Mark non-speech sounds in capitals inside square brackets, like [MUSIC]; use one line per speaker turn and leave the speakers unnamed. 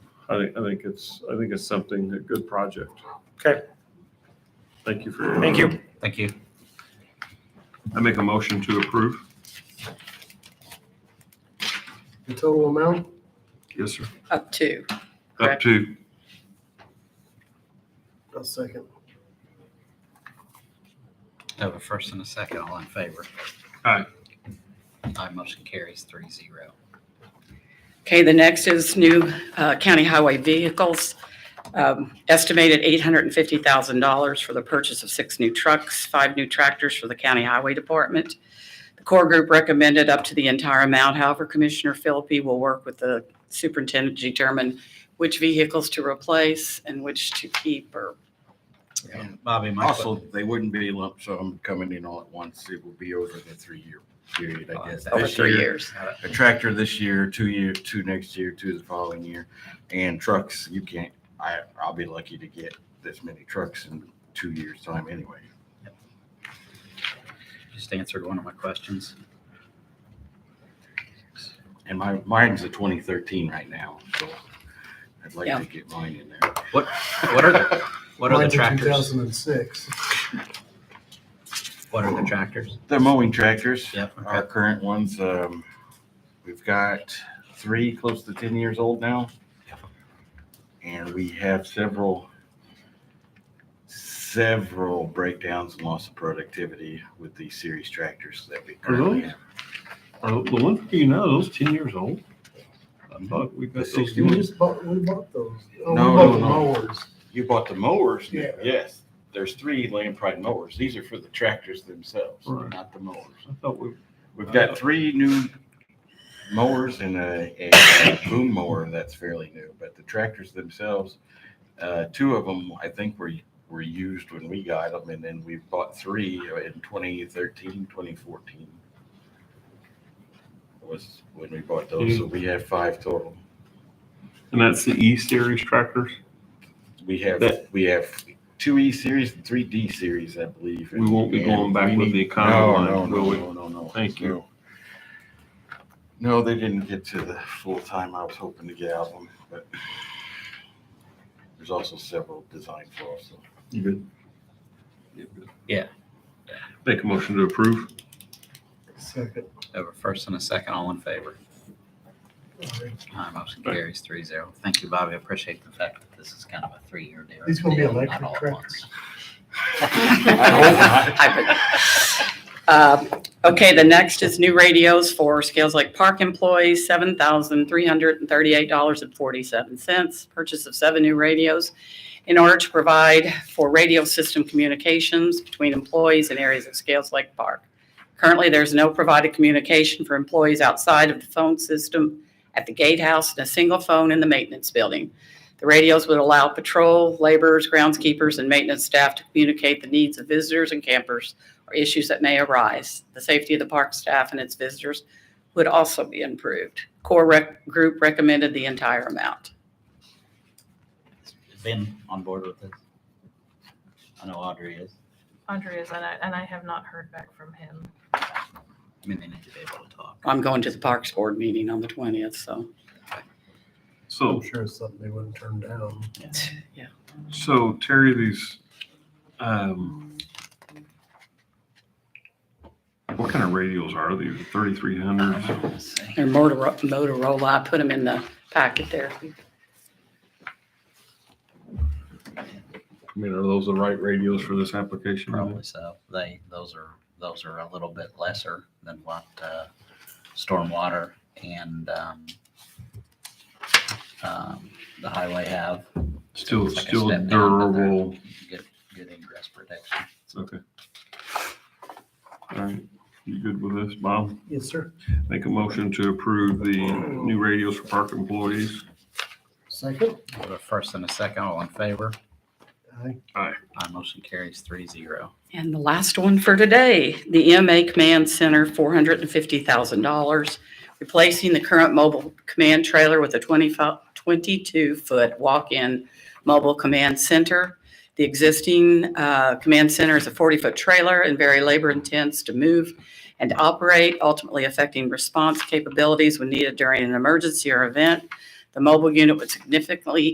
I think, I think it's, I think it's something, a good project.
Okay.
Thank you for. your-
Thank you.
Thank you.
I make a motion to approve.
The total amount?
Yes, sir.
Up to.
Up
Correct.
to,
I'll second.
I Have a first and a second, all in favor.
Aye.
Aye, motion carries three zero.
Okay, the next is new uh, county highway vehicles. Um, Estimated $850,000 for the purchase of six new trucks, five new tractors for the county highway department. The core group recommended up to the entire amount. However, Commissioner Philippi will work with the superintendent to determine which vehicles to replace and which to keep or,
And Bobby, my
Also,
question,
they wouldn't be lump sum coming in all at once. It would be over the three-year period,
Oh,
I guess.
that's
over
This
three
year,
years.
uh,
A tractor this year, two year, two next year, two the following year, and trucks, you can't, I, I'll be lucky to get this many trucks in two years' time anyway.
just answered one of my questions.
And my, mine's a twenty thirteen right now, so I'd like
Yeah.
to get mine in there.
What, what are the, what are the
Mine's a
tractors?
2006.
What are the tractors?
The mowing tractors.
Yep, okay.
Our current ones, um, we've got three close to ten years old now. And we have several, several breakdowns and loss of productivity with these series tractors that we currently
Really?
have.
Are the ones for uh, you now, those ten years old? I thought we got those
We
ones.
just bought, we bought those. Oh, we
No,
bought
no,
the
no.
Mowers.
You bought the mowers?
Yeah.
Yes, there's three Land Pride mowers. These are for the tractors themselves,
Right.
not the mowers.
I thought we,
We've
Oh.
got three new mowers and a, a boom mower that's fairly new, but the tractors themselves, uh, two of them, I think were, were used when we got them and then we bought three in 2013, 2014. Was when we bought those,
Hmm.
so we have five total.
and that's the E series tractors.
We have, we have two E series and three D series, I believe.
We won't be going back
And we
with the
need-
economy
No,
line,
no,
will we?
No, no, no, no.
Thank you.
No, they didn't get to the full time I was hoping to get out of them, but there's also several designed for us. so.
You good?
Yeah.
Make a motion to approve.
Second.
I Have a first and a second, all in favor.
All right.
Aye, motion carries three zero. Thank you, Bobby. I appreciate the fact that this is kind of a three-year deal.
These gonna be
deal, not
electric
all at
tractors. [LAUGHS]
I
Um, Okay, the next is new radios for Scales Lake Park employees, seven thousand three hundred and thirty-eight dollars and forty-seven cents. Purchase of seven new radios in order to provide for radio system communications between employees in areas of Scales Lake Park. Currently, there's no provided communication for employees outside of the phone system at the gatehouse and a single phone in the maintenance building. The radios would allow patrol, laborers, groundskeepers, and maintenance staff to communicate the needs of visitors and campers or issues that may arise. The safety of the park staff and its visitors would also be improved. Core rec- group recommended the entire amount.
once. [LAUGHS] Ben on board with this? I know Audrey is.
Andrea's, and I, and I have not heard back from him.
I mean, they need to be able to talk.
I'm going to the Parks Board meeting on the 20th, so.
So,
I'm sure it's something they wouldn't turn down.
yeah.
so Terry, these, um, what kind of radios are these? Thirty-three hundreds?
Let's see.
They're Motorola, Motorola, I put them in the packet there.
I mean, are those the right radios for this application?
Probably so. They, those are, those are a little bit lesser than what, uh, stormwater and, um, um, the highway have.
Still,
It's like a
still
step down, but they're
durable.
Good, good ingress protection.
Okay. All right, you good with this, Bob?
Yes, sir.
Make a motion to approve the new radios for park employees.
Second.
We have a first and a second, all in favor.
Aye.
My motion carries three zero.
And the last one for today, the EMA Command Center, $450,000, replacing the current mobile command trailer with a 22-foot walk-in mobile command center. The existing uh, command center is a 40-foot trailer and very labor-intense to move and operate, ultimately affecting response capabilities when needed during an emergency or event. The mobile unit would significantly